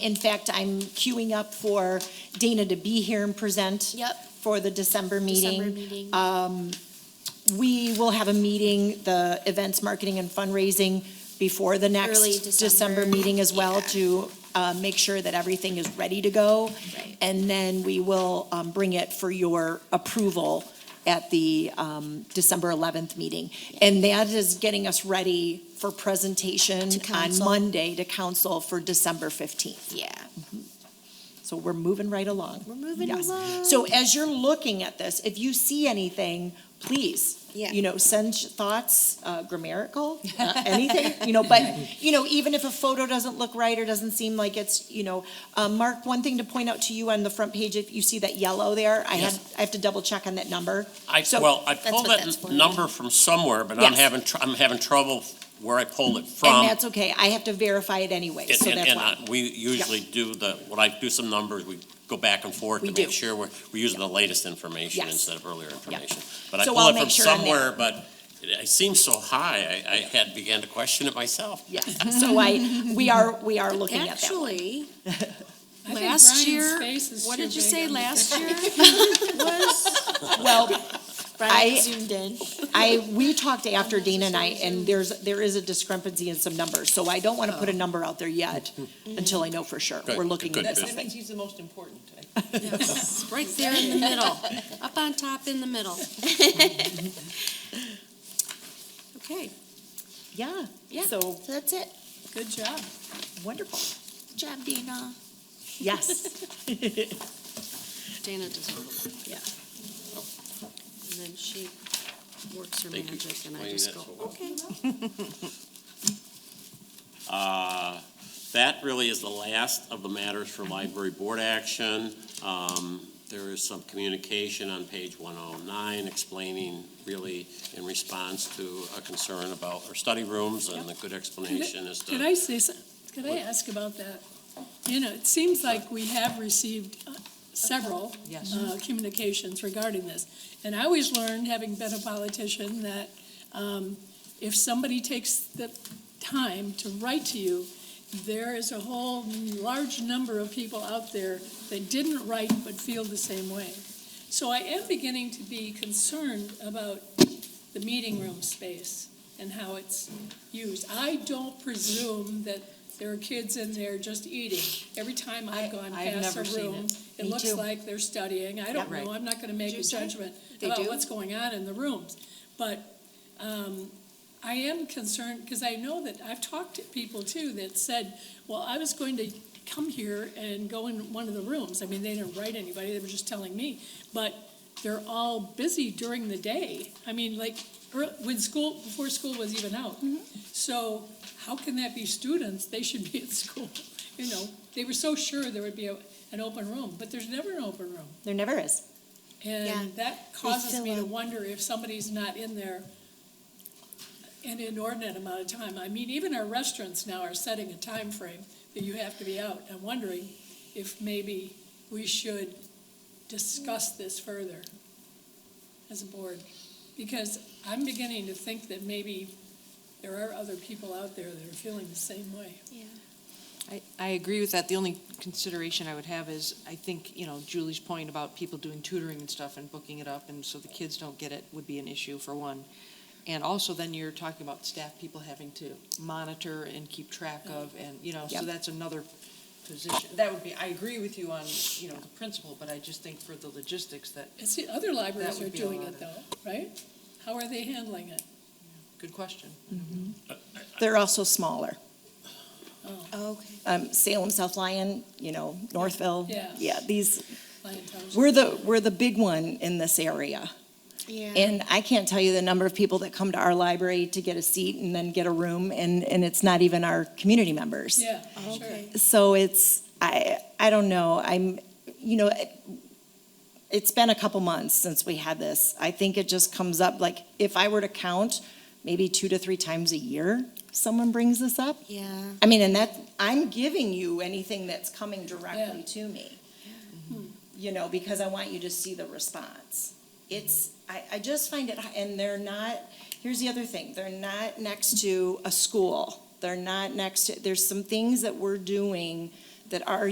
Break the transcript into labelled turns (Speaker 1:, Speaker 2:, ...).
Speaker 1: In fact, I'm queuing up for Dana to be here and present.
Speaker 2: Yep.
Speaker 1: For the December meeting.
Speaker 2: December meeting. uh,
Speaker 1: We will have a meeting, the events, marketing, and fundraising before the
Speaker 2: Early
Speaker 1: next
Speaker 2: December.
Speaker 1: December meeting as well
Speaker 2: Yeah.
Speaker 1: to uh, make sure that everything is ready to go.
Speaker 2: Right.
Speaker 1: And then we will um, bring it for your approval at the um, December 11th meeting. And that is getting us ready for presentation
Speaker 2: To
Speaker 1: on
Speaker 2: council.
Speaker 1: Monday to council for December 15th.
Speaker 2: Yeah.
Speaker 1: So we're moving right along.
Speaker 2: We're moving
Speaker 1: Yes.
Speaker 2: along.
Speaker 1: So as you're looking at this, if you see anything, please,
Speaker 2: Yeah.
Speaker 1: you know, send thoughts, uh, grammatical, uh, anything, you know, but, you know, even if a photo doesn't look right or doesn't seem like it's, you know, um, Mark, one thing to point out to you on the front page, if you see that yellow there, I had,
Speaker 3: Yes.
Speaker 1: I have to double check on that number.
Speaker 3: I,
Speaker 1: So-
Speaker 3: well, I
Speaker 2: That's
Speaker 3: pulled
Speaker 2: what that's for.
Speaker 3: that number from somewhere, but I'm
Speaker 1: Yes.
Speaker 3: having, tr- I'm having trouble where I pulled it from.
Speaker 1: And that's okay, I have to verify it anyway,
Speaker 3: And-
Speaker 1: so
Speaker 3: and-
Speaker 1: that's
Speaker 3: and, uh,
Speaker 1: why.
Speaker 3: We usually do the, when I do some numbers, we go back and forth
Speaker 1: We
Speaker 3: to
Speaker 1: do.
Speaker 3: make sure we're, we're using the latest information
Speaker 1: Yes.
Speaker 3: instead of earlier information. But I
Speaker 1: So
Speaker 3: pulled
Speaker 1: I'll
Speaker 3: it
Speaker 1: make
Speaker 3: from
Speaker 1: sure on that.
Speaker 3: somewhere, but it it seems so high, I, I had, began to question it myself.
Speaker 1: Yes, so I, we are, we are looking at that one.
Speaker 4: Actually,
Speaker 5: I think
Speaker 4: last
Speaker 5: Brian's
Speaker 4: year,
Speaker 5: face is
Speaker 4: what
Speaker 5: too
Speaker 4: did you
Speaker 5: big
Speaker 4: say
Speaker 5: on the-
Speaker 4: last year?
Speaker 1: Well,
Speaker 2: Brian
Speaker 1: I-
Speaker 2: zoomed in.
Speaker 1: I, we talked after Dana and I, and there's, there is a discrepancy in some numbers, so I don't want to put a number out there yet until I know for sure.
Speaker 3: Oh. Good,
Speaker 1: We're looking
Speaker 3: good,
Speaker 1: into
Speaker 3: good.
Speaker 6: That
Speaker 1: something.
Speaker 6: means he's the most important.
Speaker 4: It's right there in the middle, up on top in the middle. Okay,
Speaker 1: Yeah,
Speaker 4: Yeah.
Speaker 1: so that's it.
Speaker 5: Good job.
Speaker 1: Wonderful.
Speaker 2: Good job, Dana.
Speaker 1: Yes,
Speaker 4: Dana does all the work,
Speaker 1: yeah.
Speaker 4: and then she works her
Speaker 3: Thank you.
Speaker 4: magic, and I
Speaker 3: Explain
Speaker 4: just
Speaker 3: that
Speaker 4: go,
Speaker 3: so well.
Speaker 4: okay.
Speaker 3: Uh, That really is the last of the matters for library board action. Um, There is some communication on page 109 explaining really in response to a concern about our study rooms and the good explanation as
Speaker 5: Can
Speaker 3: to.
Speaker 5: I say, some- can I ask about that? You know, it seems like we have received uh, several
Speaker 6: Yes.
Speaker 5: uh, communications regarding this. And I always learned, having been a politician, that um, if somebody takes the time to write to you, there is a whole large number of people out there that didn't write but feel the same way. So I am beginning to be concerned about the meeting room space and how it's used. I don't presume that there are kids in there just eating. Every time I've gone
Speaker 6: I- I've
Speaker 5: past
Speaker 6: never
Speaker 5: a
Speaker 6: seen
Speaker 5: room,
Speaker 6: it.
Speaker 5: it
Speaker 6: Me
Speaker 5: looks
Speaker 6: too.
Speaker 5: like they're studying. I don't
Speaker 6: Yeah.
Speaker 5: know, I'm not gonna make a judgment
Speaker 6: They
Speaker 5: about
Speaker 6: do?
Speaker 5: what's going on in the rooms. But, um, I am concerned, because I know that, I've talked to people too that said, well, I was going to come here and go in one of the rooms. I mean, they didn't write anybody, they were just telling me. But they're all busy during the day. I mean, like, ear- when school, before school was even out.
Speaker 6: Mm-hmm.
Speaker 5: So how can that be students? They should be at school. You know, they were so sure there would be a, an open room, but there's never an open room.
Speaker 1: There never is.
Speaker 2: Yeah,
Speaker 5: And that causes
Speaker 2: fill
Speaker 5: me to
Speaker 2: up.
Speaker 5: wonder if somebody's not in there an inordinate amount of time. I mean, even our restaurants now are setting a time frame that you have to be out. I'm wondering if maybe we should discuss this further as a board. Because I'm beginning to think that maybe there are other people out there that are feeling the same way.
Speaker 6: I, I agree with that. The only consideration I would have is, I think, you know, Julie's point about people doing tutoring and stuff and booking it up, and so the kids don't get it would be an issue for one. And also then you're talking about staff people having to monitor and keep track of, and, you know,
Speaker 1: Yeah.
Speaker 6: so that's another position. That would be, I agree with you on, you know, the principle, but I just think for the logistics, that,
Speaker 5: It's the other libraries
Speaker 6: would
Speaker 5: are
Speaker 6: be a
Speaker 5: doing
Speaker 6: lot
Speaker 5: it
Speaker 6: of-
Speaker 5: though, right? How are they handling it?
Speaker 6: good question.
Speaker 1: They're also smaller.
Speaker 2: Okay.
Speaker 1: Um, Salem, South Lyon, you know, Northville.
Speaker 5: Yeah.
Speaker 1: Yeah, these,
Speaker 5: Lion Township?
Speaker 1: we're the, we're the big one in this area.
Speaker 2: Yeah.
Speaker 1: And I can't tell you the number of people that come to our library to get a seat and then get a room, and, and it's not even our community members.
Speaker 5: Yeah, sure.
Speaker 2: Okay.
Speaker 1: so it's I I don't know. I'm you know it, it's been a couple months since we had this. I think it just comes up like if I were to count, maybe two to three times a year someone brings this up.
Speaker 2: Yeah.
Speaker 1: I mean, and that I'm giving you anything that's coming directly to me. You know, because I want you to see the response. It's I, I just find it, and they're not. Here's the other thing: they're not next to a school. They're not next to. There's some things that we're doing that are